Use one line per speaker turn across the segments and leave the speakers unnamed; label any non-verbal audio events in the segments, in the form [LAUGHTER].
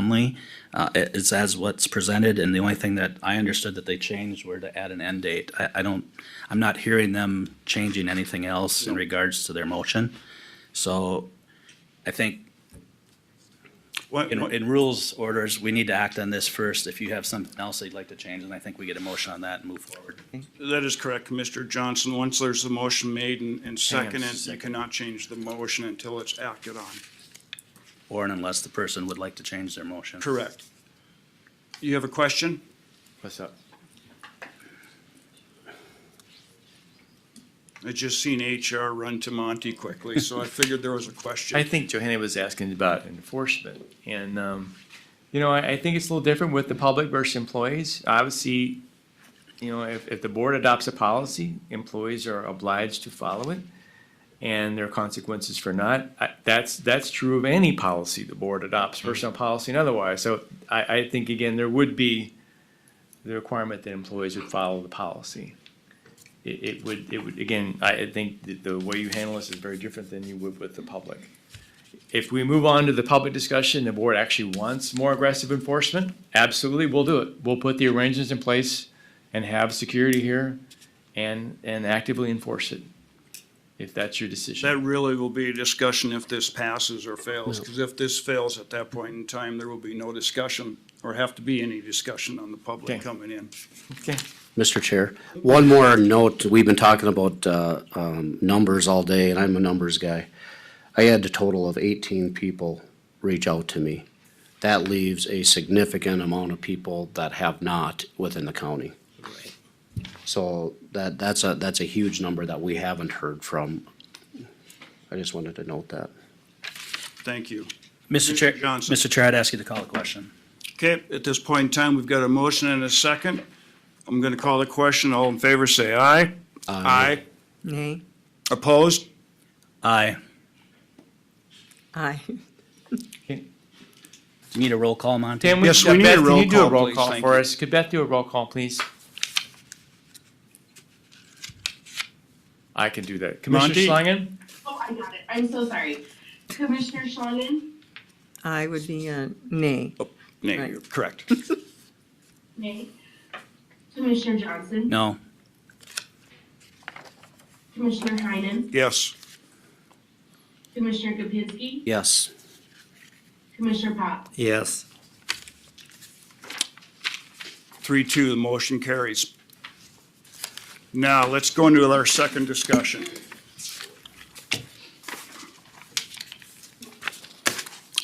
only. Uh, it- it's as what's presented, and the only thing that I understood that they changed were to add an end date. I, I don't, I'm not hearing them changing anything else in regards to their motion. So I think
What,
in,
what-
in rules orders, we need to act on this first. If you have something else that you'd like to change, and I think we get a motion on that and move forward.
that is correct, Commissioner Johnson. Once there's a motion made and,
Hang on
and
a
seconded, you
second.
cannot change the motion until it's acted on.
Or unless the person would like to change their motion.
Correct. You have a question?
What's up?
I just seen HR run to Monty quickly,
[LAUGHS]
so I figured there was a
I
question.
think Johanna was asking about enforcement, and, um, you know, I, I think it's a little different with the public versus employees. Obviously, you know, if, if the board adopts a policy, employees are obliged to follow it, and there are consequences for not. I- That's, that's true of any policy the board adopts, personal policy and otherwise. So I, I think, again, there would be the requirement that employees would follow the policy. It, it would, it would, again, I, I think that the way you handle this is very different than you would with the public. If we move on to the public discussion, the board actually wants more aggressive enforcement, absolutely, we'll do it. We'll put the arrangements in place and have security here and, and actively enforce it, if that's your
That
decision.
really will be a discussion if this passes or fails, because if this fails at that point in time, there will be no discussion or have to be any discussion on the public
Okay.
coming in.
Okay.
Mr. Chair, one more note, we've been talking about, uh, um, numbers all day, and I'm a numbers guy. I had a total of eighteen people reach out to me. That leaves a significant amount of people that have not within the county. So that, that's a, that's a huge number that we haven't heard from. I just wanted to note that.
Thank you.
Mr. Chair,
Mr. Johnson.
Mr. Chair, I'd ask you to call a question.
Okay, at this point in time, we've got a motion and a second. I'm going to call the question. All in favor, say aye. Aye.
Nay.
Opposed?
Aye.
Aye.
Do you need a roll call, Monty?
Tim, we,
Yes, we need a
Beth, can
roll
you do a
call,
roll
please?
call
Thank
for
you.
us? Could Beth do a roll call, please? I can do that. Commissioner
Monty?
Schlangen?
Oh, I got it. I'm so sorry. Commissioner Schlangen?
I would be a nay.
Nay,
Right.
you're correct. [LAUGHS]
Nay. Commissioner Johnson?
No.
Commissioner Heinen?
Yes.
Commissioner Kapinski?
Yes.
Commissioner Pop?
Yes.
Three, two, the motion carries. Now, let's go into our second discussion.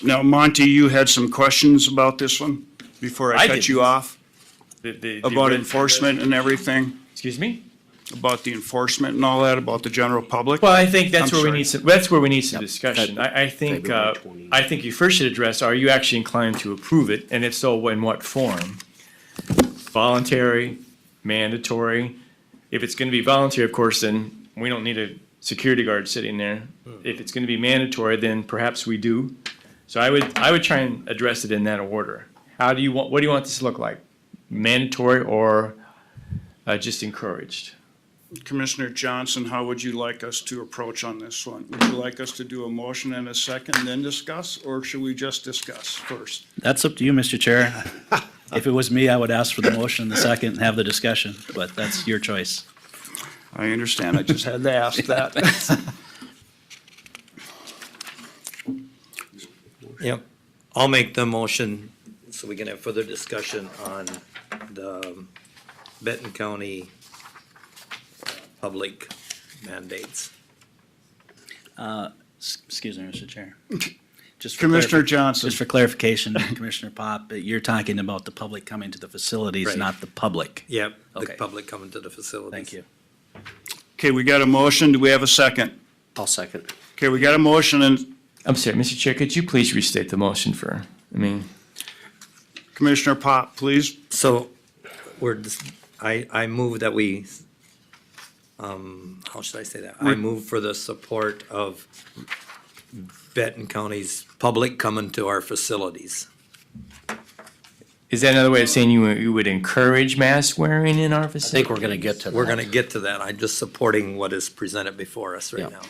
Now, Monty, you had some questions about this one before I
I
cut
didn't.
you off,
The- the- the-
about enforcement and everything,
Excuse me?
about the enforcement and all that, about the general public.
Well, I think that's
I'm
where we
sorry.
need some, that's where we need some
Yep.
discussion.
Feb-
I, I think,
February
uh,
20.
I think you first should address, are you actually inclined to approve it? And if so, in what form? Voluntary, mandatory? If it's gonna be voluntary, of course, then we don't need a security guard sitting there. If it's gonna be mandatory, then perhaps we do. So I would, I would try and address it in that order. How do you want, what do you want this to look like? Mandatory or, uh, just encouraged?
Commissioner Johnson, how would you like us to approach on this one? Would you like us to do a motion and a second, then discuss, or should we just discuss first?
That's up to you, Mr. Chair. [LAUGHS] If it was me, I would ask for the motion in the second and have the discussion, but that's your choice.
I understand, I just had to ask that.
[LAUGHS] Yep. I'll make the motion so we can have further discussion on the Benton County public mandates.
S- Excuse me, Mr. Chair. Just for
[LAUGHS] Commissioner
clarif-
Johnson,
Just for clarification, Commissioner Pop, you're talking about the public coming to the facilities,
Right.
not the public.
Yep, the
Okay.
public coming to the facilities.
Thank you.
okay, we got a motion, do we have a second?
I'll second.
Okay, we got a motion, and
I'm sorry, Mr. Chair, could you please restate the motion for, I mean,
Commissioner Pop, please.
So we're, dis- I, I move that we, um, how should I say that? I move for the support of Benton County's public coming to our facilities.
is that another way of saying you, you would encourage mask wearing in our
I think
facility?
we're gonna get to that.
We're gonna get to that. I'm just supporting what is presented before us right
Yeah.
now.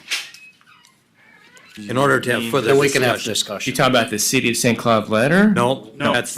in order to have further
Then we can have
discussion.
discussion.
You talking about the city of St. Cloud letter?
No,
No.
that's,